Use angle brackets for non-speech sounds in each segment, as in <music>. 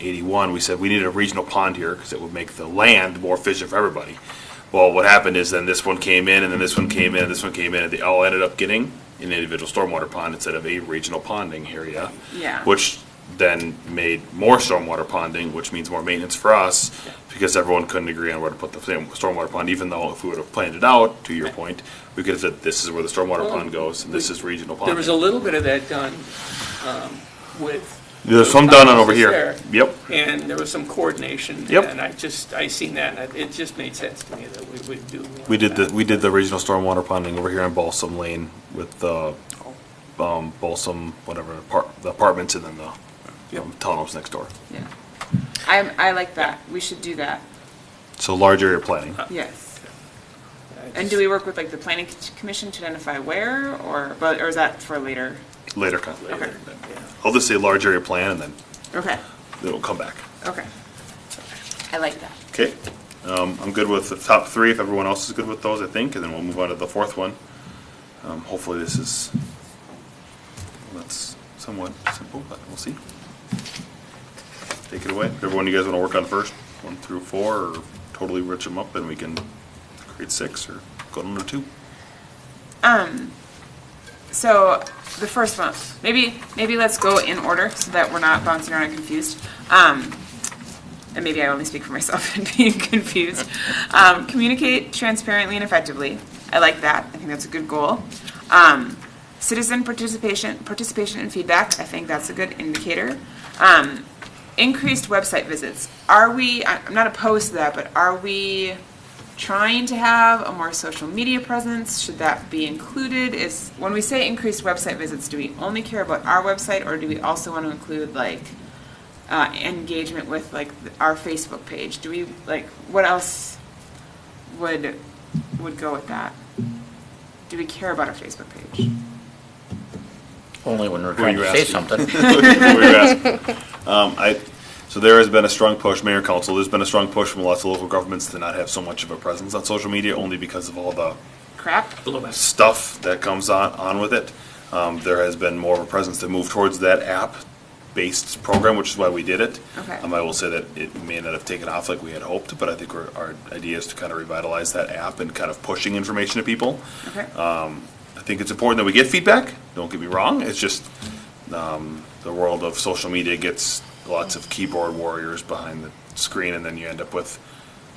81, we said we needed a regional pond here because it would make the land more efficient for everybody. Well, what happened is then this one came in, and then this one came in, and this one came in, and they all ended up getting an individual stormwater pond instead of a regional ponding area. Yeah. Which then made more stormwater ponding, which means more maintenance for us, because everyone couldn't agree on where to put the same stormwater pond, even though if we would have planned it out, to your point, we could have said, this is where the stormwater Well, pond goes, and this is regional ponding. There was a little bit of that done um, with. There's some done on over Houses here. there. Yep. And there was some coordination. Yep. And I just, I seen that, and it just made sense to me that we would do. We did the, we did the regional stormwater ponding over here on Balsam Lane with the, um, Balsam, whatever, apart, the apartments and then the, um, townhomes next door. Yeah. I, I like that. We should do that. So large area planning. Uh, Yes. I And do we work with like the planning c- commission to identify where or, but, or is that for later? Later, con- Okay. I'll just say large area plan and then Okay, it'll come back. okay. I like that. Okay. Um, I'm good with the top three if everyone else is good with those, I think, and then we'll move on to the fourth one. Um, hopefully this is, that's somewhat simple, but we'll see. Take it away. Everyone you guys want to work on first, one through four, or totally rich them up, and we can create six or go to number two. <laughs> So the first one, maybe, maybe let's go in order so that we're not bouncing around and confused. Um, and maybe I only speak for myself <laughs> and being confused. Um, communicate transparently and effectively. I like that. I think that's a good goal. Um, citizen participation, participation and feedback. I think that's a good indicator. Um, increased website visits. Are we? I- I'm not opposed to that, but are we? trying to have a more social media presence? Should that be included? Is when we say increased website visits, do we only care about our website, or do we also want to include like uh, engagement with like th- our Facebook page? Do we like what else would would go with that? Do we care about our Facebook page? Only when Who we're are trying you to say asking? <laughs> something. We were asking. Um, I, so there has been a strong push, mayor council, there's been a strong push from lots of local governments to not have so much of a presence on social media, only because of all the Crap. stuff that comes on, on with it. Um, there has been more of a presence to move towards that app-based program, which is why we did it. Okay. Um, I will say that it may not have taken off like we had hoped, but I think we're, our idea is to kind of revitalize that app and kind of pushing information to people. Okay. Uh, I think it's important that we get feedback. Don't get me wrong. It's just um, the world of social media gets lots of keyboard warriors behind the screen, and then you end up with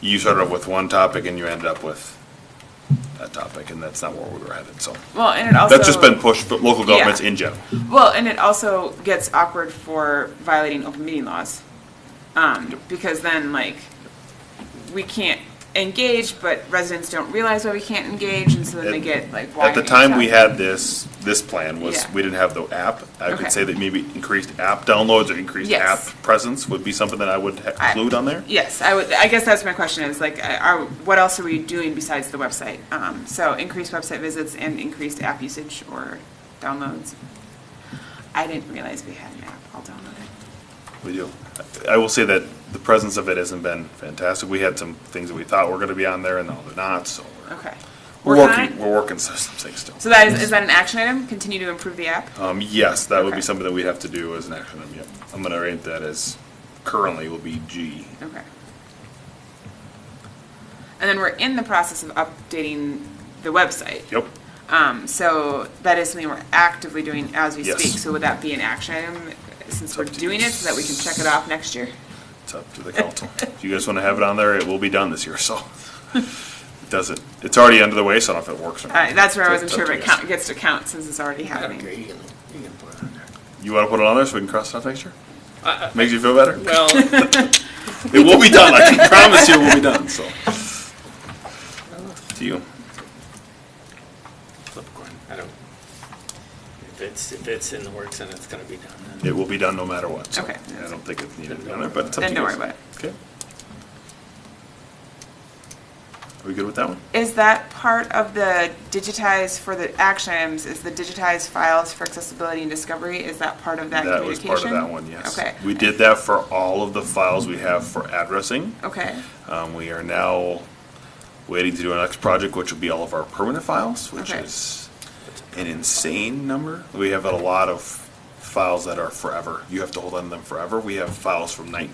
you started off with one topic, and you ended up with that topic, and that's not where we were headed. So well, and it also that's just been pushed, but local governments in general. Well, and it also gets awkward for violating open meeting laws. Um, because then, like, we can't engage, but residents don't realize why we can't engage, and so then they At- get, like, why? At the are you time we shut- had this, this plan was, Yeah. we didn't have the app. I Okay. could say that maybe increased app downloads or increased Yes. app presence would be something that I would ha- I- include on there. Yes, I would, I guess that's my question, is like, uh, are, what else are we doing besides the website? Um, so increased website visits and increased app usage or downloads. I didn't realize we had an app, I'll download it. We do. I will say that the presence of it hasn't been fantastic. We had some things that we thought were gonna be on there and now they're not, so we're, Okay. we're Working on working, it? we're working some some things still. So that is, is that an action item? Continue to improve the app? Um, yes, that would Okay. be something that we'd have to do as an action item, yep. I'm gonna rate that as currently will be G. Okay. And then we're in the process of updating the website. Yep. Um, so that is something we're actively doing as we Yes. speak. So would that be an action item since It's we're up to doing you. it so that we can check it off next year? It's up to the council. If you guys want to have it on there, it will be done this year, so. It doesn't, it's already under the way, so I don't know if it works or not. Uh, that's where I So wasn't it's up sure if to it you guys. count, gets to count since it's already I don't care, happening. you can, you can put it on there. You want to put it on there so we can cross it off next year? Uh, I- Makes you feel better? <laughs> Well, It will be done, I can promise you it will be done, so. To you. flip a coin, I don't, if it's, if it's in the works and it's gonna be done, then. It will be done no matter what, so. Okay. I don't think it's needed to be on there, but it's up to Then you don't worry guys. about it. Okay. Are we good with that one? Is that part of the digitized for the action items? Is the digitized files for accessibility and discovery? Is that part of that That was communication? part of that one, yes. Okay. We did that for all of the files we have for addressing. Okay. Um, we are now waiting to do our next project, which will be all of our permanent files, which Okay. is an insane number. We have a lot of files that are forever. You have to hold on to them forever. We have files from nineteen